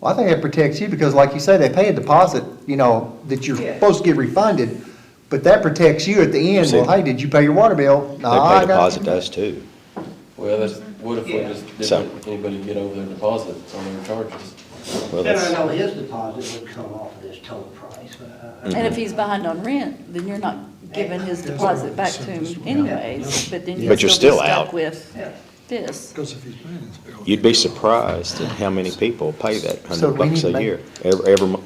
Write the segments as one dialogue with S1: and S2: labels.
S1: Well, I think it protects you because like you say, they pay a deposit, you know, that you're
S2: Yeah.
S1: supposed to get refunded, but that protects you at the end.
S3: See.
S1: Well, hey, did you pay your water bill?
S3: They
S1: Nah, Ah, I
S3: pay
S1: got
S3: deposit
S1: you.
S3: to us too.
S4: Well, that's, what if we
S2: Yeah.
S4: just
S3: So-
S4: didn't, anybody get over their deposits on their charges?
S3: Well,
S2: Then
S3: that's,
S2: I know his deposit would come off of this total price, but uh, I-
S3: Mm-hmm.
S2: I-
S5: And if he's behind on rent, then you're not giving his deposit back to him anyways, but then
S3: But
S5: you're
S3: you're
S5: still
S3: still
S5: be stuck
S3: out.
S5: with
S2: yeah.
S5: this.
S6: Because if he's paying his bill.
S3: you'd be surprised at how many people pay that
S1: So
S3: hundred
S1: we need
S3: bucks
S1: to
S3: a
S1: make-
S3: year. Every, every, mo-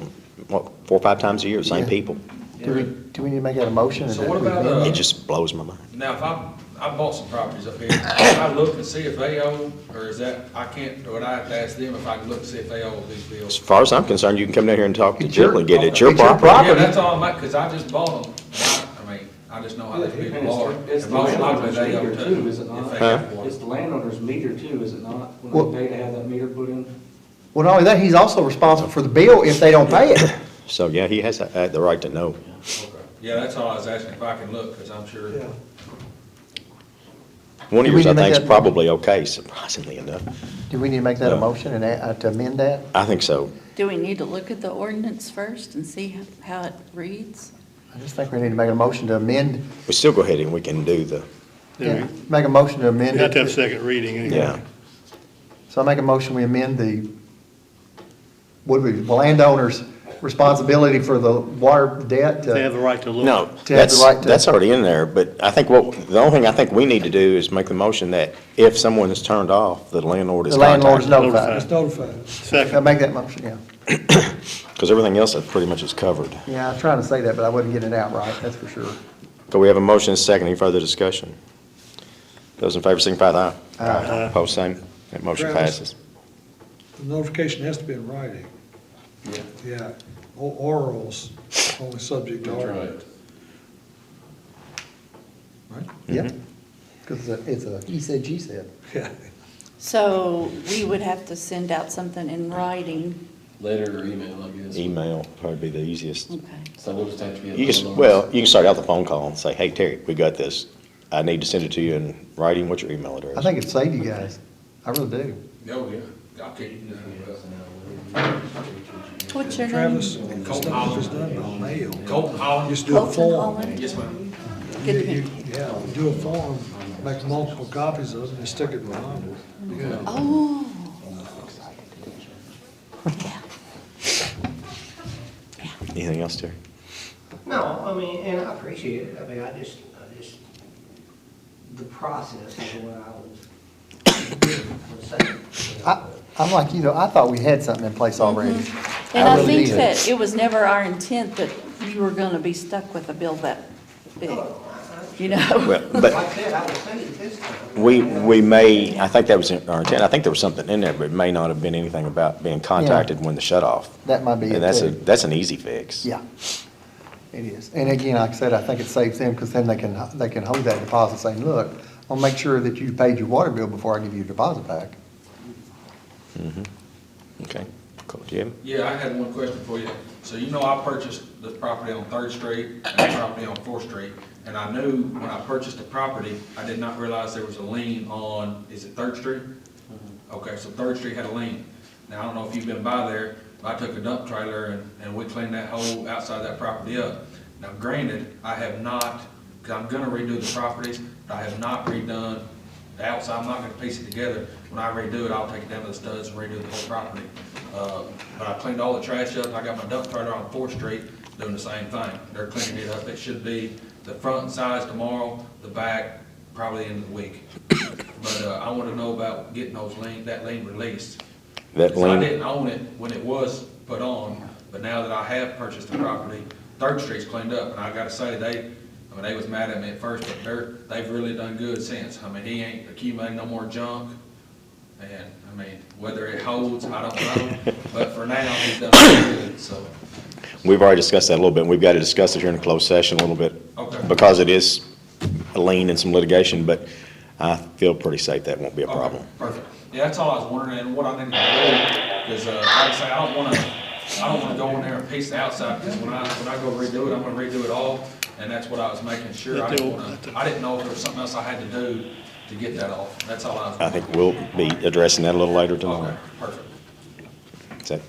S3: what, four, or five times a year, same
S1: Yeah.
S3: people.
S1: Do we, do we need to make that a motion? and
S7: So
S1: that
S7: what
S1: we
S7: about,
S1: amend
S7: uh,
S1: it?
S3: It just blows my mind.
S7: Now, if I, I bought some properties up here, I look and see if they owe, or is that, I can't, or would I have to ask them if I can look and see if they owe these
S3: As
S7: bills?
S3: far as I'm concerned, you can come down here and talk to
S1: It's your-
S3: Jill and get it. It's your
S1: it's your
S3: property.
S1: property.
S7: Yeah, that's all I'm, because I just bought them, I I mean, I just know how these
S4: And
S7: people are.
S4: it's, it's
S7: And
S4: the
S7: most likely
S4: landowner's
S7: they owe
S4: meter too, is it
S7: if
S4: not?
S7: they
S3: Huh?
S7: have one.
S4: It's the landowner's meter too, is it not?
S1: Well-
S4: When they pay to have that meter put in?
S1: Well, not only that, he's also responsible for the bill if they don't pay it.
S3: So, yeah, he has uh, the right to know.
S7: Okay. Yeah, that's all I was asking, if I can look, because I'm sure.
S6: Yeah.
S3: One of
S1: Do we
S3: yours, I
S1: need to make
S3: think, is
S1: that-
S3: probably okay, surprisingly enough.
S1: Do we need to make that a
S3: No.
S1: motion and a- uh, to amend that?
S3: I think so.
S5: Do we need to look at the ordinance first and see how it reads?
S1: I just think we need to make a motion to amend,
S3: We still go ahead and we can do the,
S1: yeah, make a motion to amend
S8: You have to have a
S1: it.
S8: second reading anyway.
S3: yeah.
S1: So I make a motion, we amend the, what would, the landowner's responsibility for the water debt. uh, to-
S8: They have the right to look.
S3: No,
S1: To have the
S3: that's,
S1: right to-
S3: that's already in there, but I think what, the only thing I think we need to do is make the motion that if someone is turned off, the landlord is
S1: The landlord's
S3: contacted.
S1: notified.
S6: Just notified us.
S1: I
S8: Second,
S1: make that motion, yeah.
S3: Because everything else that pretty much is covered.
S1: Yeah, I was trying to say that, but I wasn't getting it out right, that's for sure.
S3: So we have a motion and a second. Any further discussion? Those in favor signify by aye.
S8: Aye.
S3: Post same. That motion
S6: Travis.
S3: passes.
S6: The notification has to be in writing. Yeah, O- orals, only subject to
S4: That's
S6: oral.
S4: right.
S6: Right?
S1: Yep. Because it's a, he said, she said.
S6: Yeah.
S5: So we would have to send out something in writing.
S4: Letter or email, I guess.
S3: Email probably be the easiest.
S5: Okay.
S4: So we'll just have to be. at
S3: You can, s-
S4: landlord's.
S3: well, you can start out the phone call and say, hey, Terry, we got this. I need to send it to you in writing. What's your email address?
S1: I think it saved you guys, I really do.
S7: Oh, yeah, I can't, uh,
S5: What's your name?
S6: Travis, stuff is done by mail.
S7: Colton Holland.
S6: Just do a
S5: Colton
S6: form.
S5: Holland?
S7: Yes, ma'am.
S6: You-
S5: Good to
S6: you-
S5: meet
S6: Yeah, do a form, make multiple copies of it and stick it around.
S5: Oh.
S3: Anything else, Terry?
S2: No, I mean, and I appreciate it, I mean, I just, I just, the process is what I was
S1: I, I'm like, you know, I thought we had something in place already.
S3: Mm-hmm.
S5: And I
S1: really
S5: think
S1: did.
S5: that it was never our intent that you were gonna be stuck with a bill that big, you know?
S3: Well, but
S2: Like I said, I was saying this time.
S3: we, we may, I think that was our intent. I think there was something in there, but it may not have been anything about being contacted when the shut off.
S1: That might be it
S3: And that's a,
S1: too.
S3: that's an easy fix.
S1: Yeah, it is. And again, like I said, I think it saves them because then they can, they can hold that deposit saying, look, I'll make sure that you paid your water bill before I give you your deposit back.
S3: Okay. Cool. Do you have?
S7: Yeah, I had one question for you. So you know I purchased the property on Third Street and the property on Fourth Street, and I knew when I purchased the property, I did not realize there was a lien on, is it Third Street? Okay, so Third Street had a lien. Now, I don't know if you've been by there, but I took a dump trailer and, and we cleaned that whole outside that property up. Now granted, I have not, because I'm gonna redo the properties, but I have not redone the outside, I'm not gonna piece it together. When I redo it, I'll take it down to the studs and redo the whole property. Uh, But I cleaned all the trash up, and I got my dump trailer on Fourth Street doing the same thing. They're cleaning it up, it should be the front size tomorrow, the back probably end of the week. But uh, I want to know about getting those lien, that lien released.
S3: That
S7: So I
S3: lien-
S7: didn't own it when it was put on, but now that I have purchased the property, Third Street's cleaned up, and I gotta say, they, I mean, they was mad at me at first, but they're, they've really done good since. I mean, he ain't accumulating no more junk, and, I mean, whether it holds, I don't know, but for now, he's done really good, so.
S3: We've already discussed that a little bit, and we've got to discuss it here in closed session a little bit.
S7: Okay.
S3: Because it is a lien and some litigation, but I feel pretty safe that won't be a
S7: Okay,
S3: problem.
S7: Perfect. Yeah, that's all I was wondering, and what I need to do, is, uh, like I say, I don't wanna, I don't wanna go in there and piece the outside, because when I, when I go redo it, I'm gonna redo it all, and that's what I was making sure. I
S8: Let the
S7: didn't
S8: old-
S7: wanna,
S8: let the-
S7: I didn't know if there was something else I had to do to get that off. That's all I was.
S3: I think we'll be addressing that a little later
S7: Okay,
S3: tomorrow.
S7: perfect.
S3: Is that-